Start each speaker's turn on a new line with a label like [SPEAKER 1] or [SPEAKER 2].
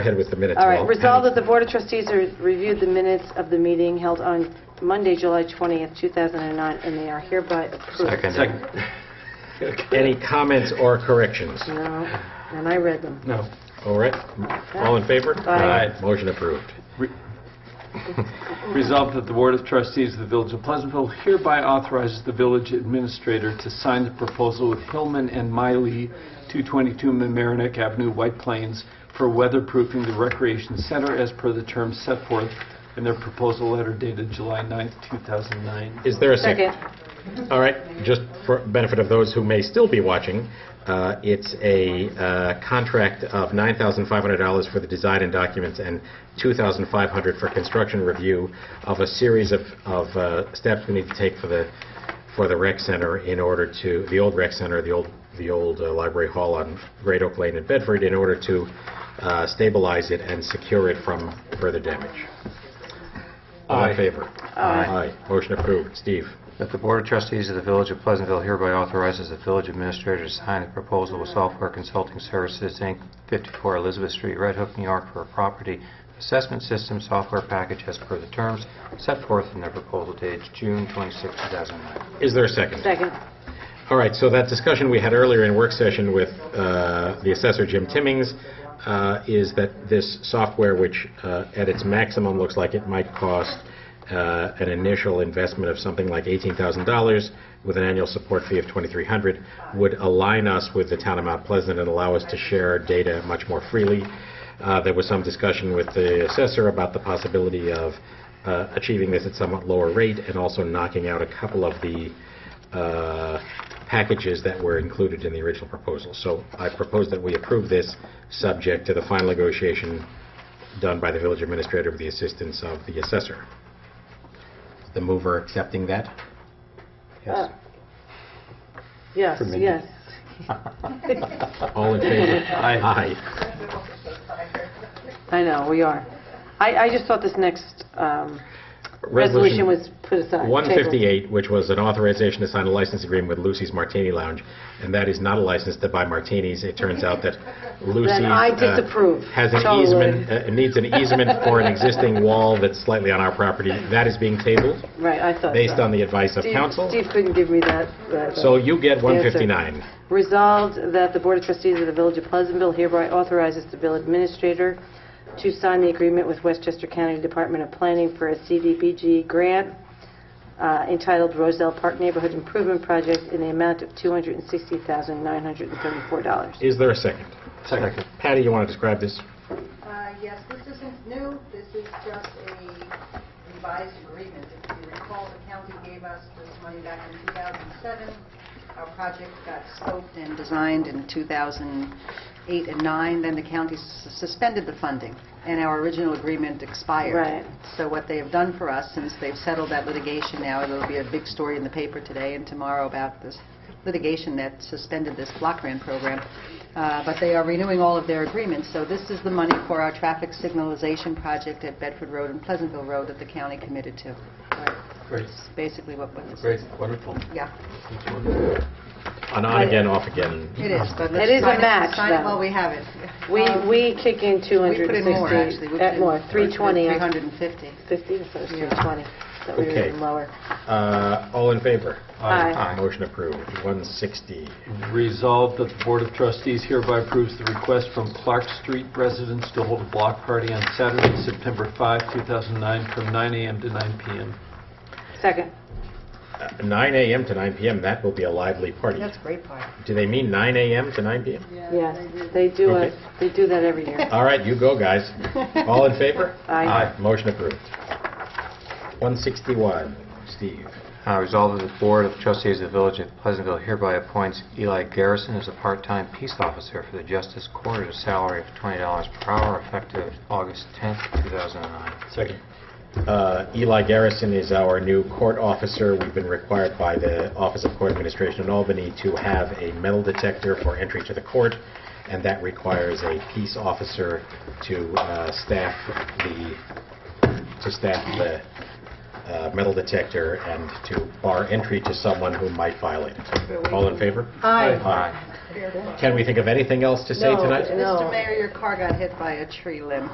[SPEAKER 1] ahead with the minutes.
[SPEAKER 2] All right,
[SPEAKER 1] Walt.
[SPEAKER 2] resolved that the Board of Trustees re- reviewed the minutes of the meeting held on Monday, July 20th, 2009, and they are hereby approved.
[SPEAKER 1] Second. Any comments or corrections?
[SPEAKER 2] No, and I read them.
[SPEAKER 3] No.
[SPEAKER 1] All right, all in favor?
[SPEAKER 2] Aye.
[SPEAKER 1] Motion approved.
[SPEAKER 3] Resolved that the Board of Trustees of the Village of Pleasantville hereby authorizes the village administrator to sign the proposal with Hillman and Miley, 222 Mamaroneck Avenue, White Plains, for weatherproofing the recreation center as per the terms set forth in their proposal letter dated July 9th, 2009.
[SPEAKER 1] Is there a
[SPEAKER 2] Second.
[SPEAKER 1] second? All right, just for benefit of those who may still be watching, uh, it's a uh, contract of $9,500 for the design and documents and $2,500 for construction review of a series of of uh, steps we need to take for the, for the rec center in order to, the old rec center, the old, the old uh, library hall on Great Oak Lane in Bedford, in order to uh, stabilize it and secure it from further damage. All in
[SPEAKER 3] Aye.
[SPEAKER 1] favor? Aye. Motion approved. Steve?
[SPEAKER 4] That the Board of Trustees of the Village of Pleasantville hereby authorizes the village administrator to sign a proposal with Software Consulting Services, Inc., 54 Elizabeth Street, Red Hook, New York, for a property assessment system software package as per the terms set forth in their proposal dated June 26, 2009.
[SPEAKER 1] Is there a second?
[SPEAKER 2] Second.
[SPEAKER 1] All right, so that discussion we had earlier in work session with uh, the assessor, Jim Timmings, uh, is that this software, which uh, at its maximum looks like it might cost uh, an initial investment of something like $18,000 with an annual support fee of $2,300, would align us with the town of Mount Pleasant and allow us to share data much more freely. Uh, There was some discussion with the assessor about the possibility of uh, achieving this at somewhat lower rate and also knocking out a couple of the uh, packages that were included in the original proposal. So I propose that we approve this, subject to the final negotiation done by the village administrator with the assistance of the assessor. The mover accepting that?
[SPEAKER 2] Uh, Yes,
[SPEAKER 4] me.
[SPEAKER 2] yes.
[SPEAKER 1] All in favor?
[SPEAKER 3] Aye.
[SPEAKER 1] Aye.
[SPEAKER 2] I know, we are. I, I just thought this next um,
[SPEAKER 1] Resolution
[SPEAKER 2] resolution was put aside.
[SPEAKER 1] 158, which was an authorization to sign a license agreement with Lucy's Martini Lounge, and that is not a license to buy martinis. It turns out that Lucy's...
[SPEAKER 2] Then I
[SPEAKER 1] uh,
[SPEAKER 2] disapprove.
[SPEAKER 1] Has an
[SPEAKER 2] Totally.
[SPEAKER 1] easement, uh, needs an easement for an existing wall that's slightly on our property. That is being tabled
[SPEAKER 2] Tabled. Right, I thought
[SPEAKER 1] based
[SPEAKER 2] so.
[SPEAKER 1] on the advice of
[SPEAKER 2] Steve-
[SPEAKER 1] council.
[SPEAKER 2] Steve couldn't give me that. uh, that-
[SPEAKER 1] So you get 159.
[SPEAKER 2] Resolved that the Board of Trustees of the Village of Pleasantville hereby authorizes the bill administrator to sign the agreement with Westchester County Department of Planning for a CDBG grant uh, entitled Roselle Park Neighborhood Improvement Project in the amount of $260,934.
[SPEAKER 1] Is there a second?
[SPEAKER 3] Second.
[SPEAKER 1] Patty, you want to describe this?
[SPEAKER 5] Uh, Yes, this isn't new, this is just a revised agreement. If you recall, the county gave us this money back in 2007. Our project got scoped and designed in 2008 and 9, then the county s- suspended the funding, and our original agreement expired.
[SPEAKER 2] Right.
[SPEAKER 5] So what they have done for us, since they've settled that litigation now, there'll be a big story in the paper today and tomorrow about this litigation that suspended this block grant program, Uh, but they are renewing all of their agreements, so this is the money for our traffic signalization project at Bedford Road and Pleasantville Road that the county committed to.
[SPEAKER 3] Great,
[SPEAKER 5] It's basically what what this is.
[SPEAKER 3] great, wonderful.
[SPEAKER 5] Yeah,
[SPEAKER 1] An on again, off again.
[SPEAKER 5] it is, but
[SPEAKER 2] It is a
[SPEAKER 5] let's sign it-
[SPEAKER 2] match,
[SPEAKER 5] sign it
[SPEAKER 2] though.
[SPEAKER 5] while we have it.
[SPEAKER 2] We
[SPEAKER 5] Um,
[SPEAKER 2] we kick in 260...
[SPEAKER 5] We put in more, actually. We put
[SPEAKER 2] At
[SPEAKER 5] in
[SPEAKER 2] uh, more, 320. on-
[SPEAKER 5] 350.
[SPEAKER 2] 50, so it's
[SPEAKER 5] Yeah.
[SPEAKER 2] 320. So we were
[SPEAKER 1] Okay.
[SPEAKER 2] even lower.
[SPEAKER 1] Uh, All in favor?
[SPEAKER 2] Aye.
[SPEAKER 1] Motion approved. 160.
[SPEAKER 3] Resolved that the Board of Trustees hereby approves the request from Clark Street residents to hold a block party on Saturday, September 5, 2009, from 9 a.m. to 9 p.m.
[SPEAKER 2] Second.
[SPEAKER 1] Uh, 9 a.m. to 9 p.m., that will be a lively party.
[SPEAKER 5] That's a great part.
[SPEAKER 1] Do they mean 9 a.m. to 9 p.m.?
[SPEAKER 2] Yes, they do
[SPEAKER 1] Okay.
[SPEAKER 2] it, they do that every year.
[SPEAKER 1] All right, you go, guys. All in favor?
[SPEAKER 2] Aye.
[SPEAKER 1] Motion approved. 161, Steve.
[SPEAKER 4] Uh, Resolved that the Board of Trustees of the Village of Pleasantville hereby appoints Eli Garrison as a part-time peace officer for the Justice Court at a salary of $20 per hour effective August 10, 2009.
[SPEAKER 3] Second.
[SPEAKER 1] Uh, Eli Garrison is our new court officer. We've been required by the Office of Court Administration in Albany to have a metal detector for entry to the court, and that requires a peace officer to uh, staff the, to staff the uh, metal detector and to bar entry to someone who might violate it. All in favor?
[SPEAKER 2] Aye.
[SPEAKER 4] Aye.
[SPEAKER 1] Can we think of anything else to say
[SPEAKER 2] No,
[SPEAKER 1] tonight?
[SPEAKER 2] No.
[SPEAKER 5] Mr. Mayor, your car got hit by a tree limb.